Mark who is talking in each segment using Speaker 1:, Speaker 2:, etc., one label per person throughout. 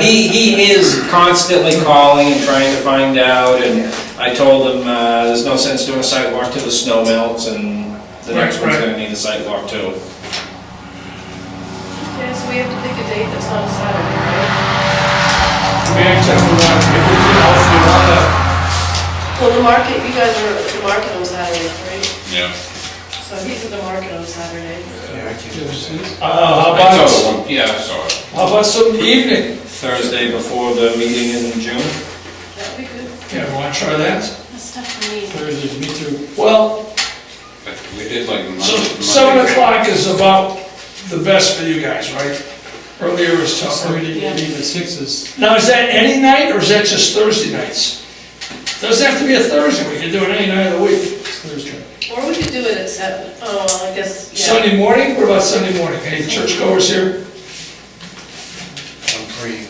Speaker 1: He, he is constantly calling and trying to find out, and I told him, uh, there's no sense doing a sidewalk till the snow melts, and the next
Speaker 2: Right,
Speaker 1: one's
Speaker 2: right.
Speaker 1: gonna need a sidewalk too.
Speaker 3: Yeah, so we have to pick a date that's not a Saturday, right?
Speaker 2: Back to, uh, if we could also do all that.
Speaker 3: Well, the market, you guys are at the market on Saturday, right?
Speaker 4: Yeah.
Speaker 3: So he's at the market on Saturday.
Speaker 2: Uh,
Speaker 4: I
Speaker 2: how about,
Speaker 4: saw one, yeah, I saw it.
Speaker 2: how about some evening?
Speaker 1: Thursday before the meeting in June.
Speaker 3: That'd be good.
Speaker 2: Yeah, wanna try that?
Speaker 3: That's tough for me.
Speaker 5: Thursday, me too.
Speaker 2: Well,
Speaker 4: But We did like Monday.
Speaker 2: so seven o'clock is about the best for you guys, right? Earlier is tougher.
Speaker 5: Saturday,
Speaker 3: Yeah.
Speaker 5: even six is,
Speaker 2: Now, is that any night or is that just Thursday nights? Doesn't have to be a Thursday, we can do it any night of the week.
Speaker 5: it's Thursday.
Speaker 3: Or we could do it at seven. Oh, well, I guess, yeah.
Speaker 2: Sunday morning, what about Sunday morning? Any churchgoers here?
Speaker 6: I'm praying,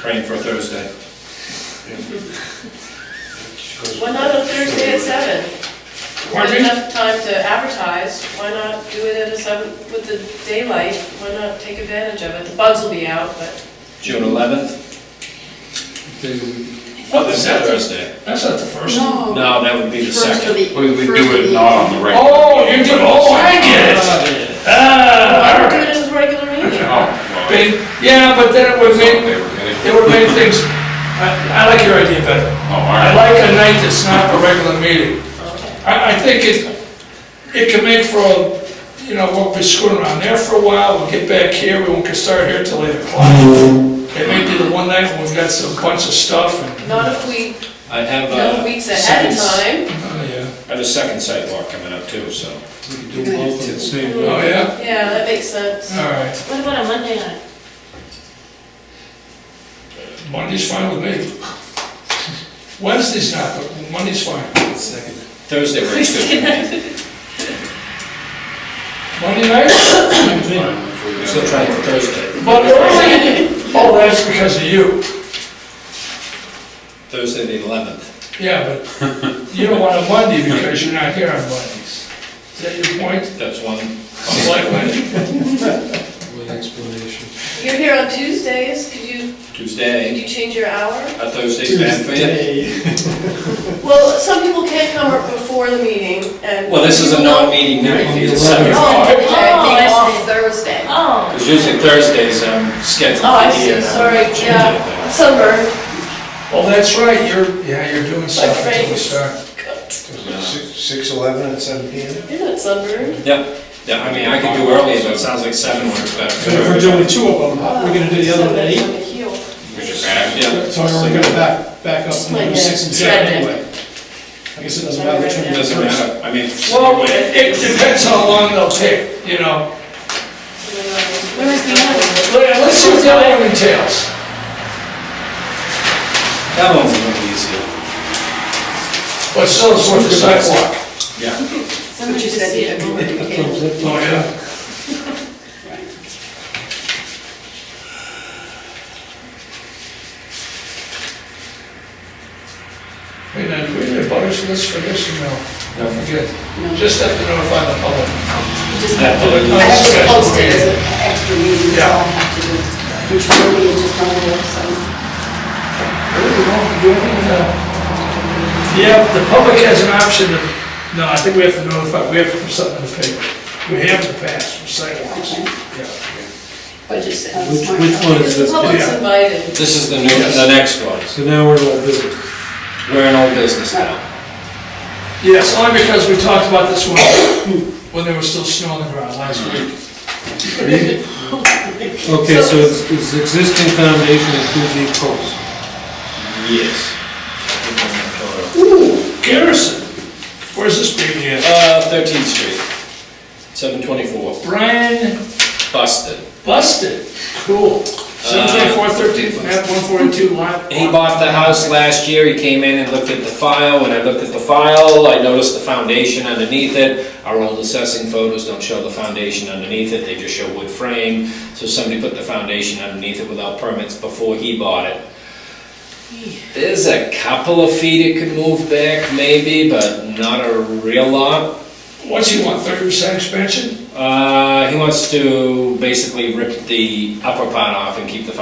Speaker 1: Praying for Thursday.
Speaker 6: because
Speaker 3: Why not on Thursday at seven?
Speaker 2: Pardon
Speaker 3: There's
Speaker 2: me?
Speaker 3: Enough time to advertise, why not do it at a seven, with the daylight, why not take advantage of it? The bugs will be out, but
Speaker 1: June eleventh?
Speaker 2: Oh, that's not
Speaker 1: Thursday.
Speaker 2: Thursday. That's not the first. one.
Speaker 3: Oh.
Speaker 7: No.
Speaker 1: No, that would be the
Speaker 7: First of
Speaker 1: second.
Speaker 7: the.
Speaker 4: We, we
Speaker 7: first of
Speaker 4: do it
Speaker 7: the-
Speaker 4: not on the regular.
Speaker 2: Oh, you do, oh, I get it.
Speaker 3: why not
Speaker 2: Ah,
Speaker 3: do it at his regular meeting?
Speaker 4: Oh, well,
Speaker 2: Big- yeah, but then it would
Speaker 4: they
Speaker 2: make,
Speaker 4: were getting-
Speaker 2: it would make things, I, I like your idea better.
Speaker 4: Oh, all
Speaker 2: I
Speaker 4: right.
Speaker 2: like a night that's not a regular meeting. I, I think it, it can make for, a you know, we'll be screwing around there for a while, we'll get back here, we won't get started here till eight o'clock. It may be the one night when we've got some bunch of stuff and,
Speaker 3: Not if we
Speaker 1: I have
Speaker 3: know
Speaker 1: a
Speaker 3: weeks
Speaker 1: second,
Speaker 3: ahead of time.
Speaker 2: oh, yeah.
Speaker 1: I have a second sidewalk coming up too, so.
Speaker 5: We could do both at the same time.
Speaker 2: Oh, yeah?
Speaker 3: Yeah, that makes sense.
Speaker 2: All right,
Speaker 7: What about a Monday night?
Speaker 2: Monday's fine with me. Wednesday's not, but Monday's fine.
Speaker 1: Thursday works good. for me.
Speaker 2: Monday night?
Speaker 1: I'm Still trying for Thursday.
Speaker 2: But early, oh, that's because of you.
Speaker 1: Thursday the eleventh.
Speaker 2: Yeah, but you don't want a Monday because you're not here on Mondays. Is that your point?
Speaker 1: That's one.
Speaker 2: Selectmen?
Speaker 5: With explanation.
Speaker 3: You're here on Tuesdays, could you, could
Speaker 1: Tuesday,
Speaker 3: you change your hour?
Speaker 1: a Thursday's bad for you?
Speaker 3: Well, some people can't come up before the meeting and.
Speaker 1: Well, this is a non-meeting night, it's seven
Speaker 3: Oh,
Speaker 1: o'clock.
Speaker 3: okay,
Speaker 7: Oh, I
Speaker 3: I think
Speaker 7: see.
Speaker 3: off Thursday.
Speaker 7: Oh.
Speaker 1: Because usually Thursdays, I'm scheduled
Speaker 3: Oh, I
Speaker 1: for the,
Speaker 3: see,
Speaker 1: uh,
Speaker 3: sorry,
Speaker 1: change
Speaker 3: yeah,
Speaker 1: it.
Speaker 3: sunburn.
Speaker 2: Oh, that's right, you're, yeah, you're doing stuff until we start.
Speaker 6: Six, eleven, and seven P M?
Speaker 3: You're not sunburned.
Speaker 1: Yep, yeah, I mean, I could do earlier, but it sounds like seven works better.
Speaker 5: But if we're doing two of them, we're gonna do the other one at eight,
Speaker 4: Get your back.
Speaker 1: Yeah,
Speaker 5: so we're gonna back, back up and do six and seven anyway. I guess it doesn't matter which one.
Speaker 1: it
Speaker 5: we do
Speaker 1: doesn't
Speaker 5: first.
Speaker 1: matter, I mean. if-
Speaker 2: Well, it it depends how long they'll take, you know.
Speaker 3: Where is the other?
Speaker 2: Let- Let's see what the other one entails.
Speaker 1: That one's a little easier.
Speaker 2: But still, it's worth the sidewalk.
Speaker 1: Yeah,
Speaker 7: Somebody just see it.
Speaker 2: Oh, yeah. Wait, now, do we need a butters list for this or no? Don't forget, just have to notify the
Speaker 1: that
Speaker 2: public.
Speaker 1: one.
Speaker 7: I have to
Speaker 2: Special
Speaker 7: post it as
Speaker 2: meeting.
Speaker 7: an extra meeting, that's all I have to do, which will be just one of those, so.
Speaker 2: Really, we don't have to do anything with that. Yeah, the public has an option of, no, I think we have to notify, we have to put something in the paper. We have to pass for sidewalks.
Speaker 7: okay.
Speaker 2: Yeah.
Speaker 7: But just. uh,
Speaker 5: Which,
Speaker 7: smart
Speaker 5: which one
Speaker 7: copy.
Speaker 5: is
Speaker 3: The
Speaker 5: Oh,
Speaker 3: public's
Speaker 5: this?
Speaker 3: invited.
Speaker 1: This is the new, the next one,
Speaker 5: So now we're all busy.
Speaker 1: we're in old business now.
Speaker 2: Yes, only because we talked about this one when there was still snow on the ground last week.
Speaker 5: Okay, so it's, it's existing foundation and two deep posts.
Speaker 1: Yes.
Speaker 2: Garrison, where's this baby at?
Speaker 1: Uh, Thirteenth Street, seven twenty-four,
Speaker 2: Brian
Speaker 1: busted.
Speaker 2: Busted,
Speaker 1: Uh,
Speaker 2: cool. Seventeen four thirteen, map one forty-two lot.
Speaker 1: He bought the house last year, he came in and looked at the file, when I looked at the file, I noticed the foundation underneath it. Our old assessing photos don't show the foundation underneath it, they just show wood frame, so somebody put the foundation underneath it without permits before he bought it. There's a couple of feet it could move back maybe, but not a real lot.
Speaker 2: What's he want, thirty percent expansion?
Speaker 1: Uh, he wants to basically rip the upper part off and keep the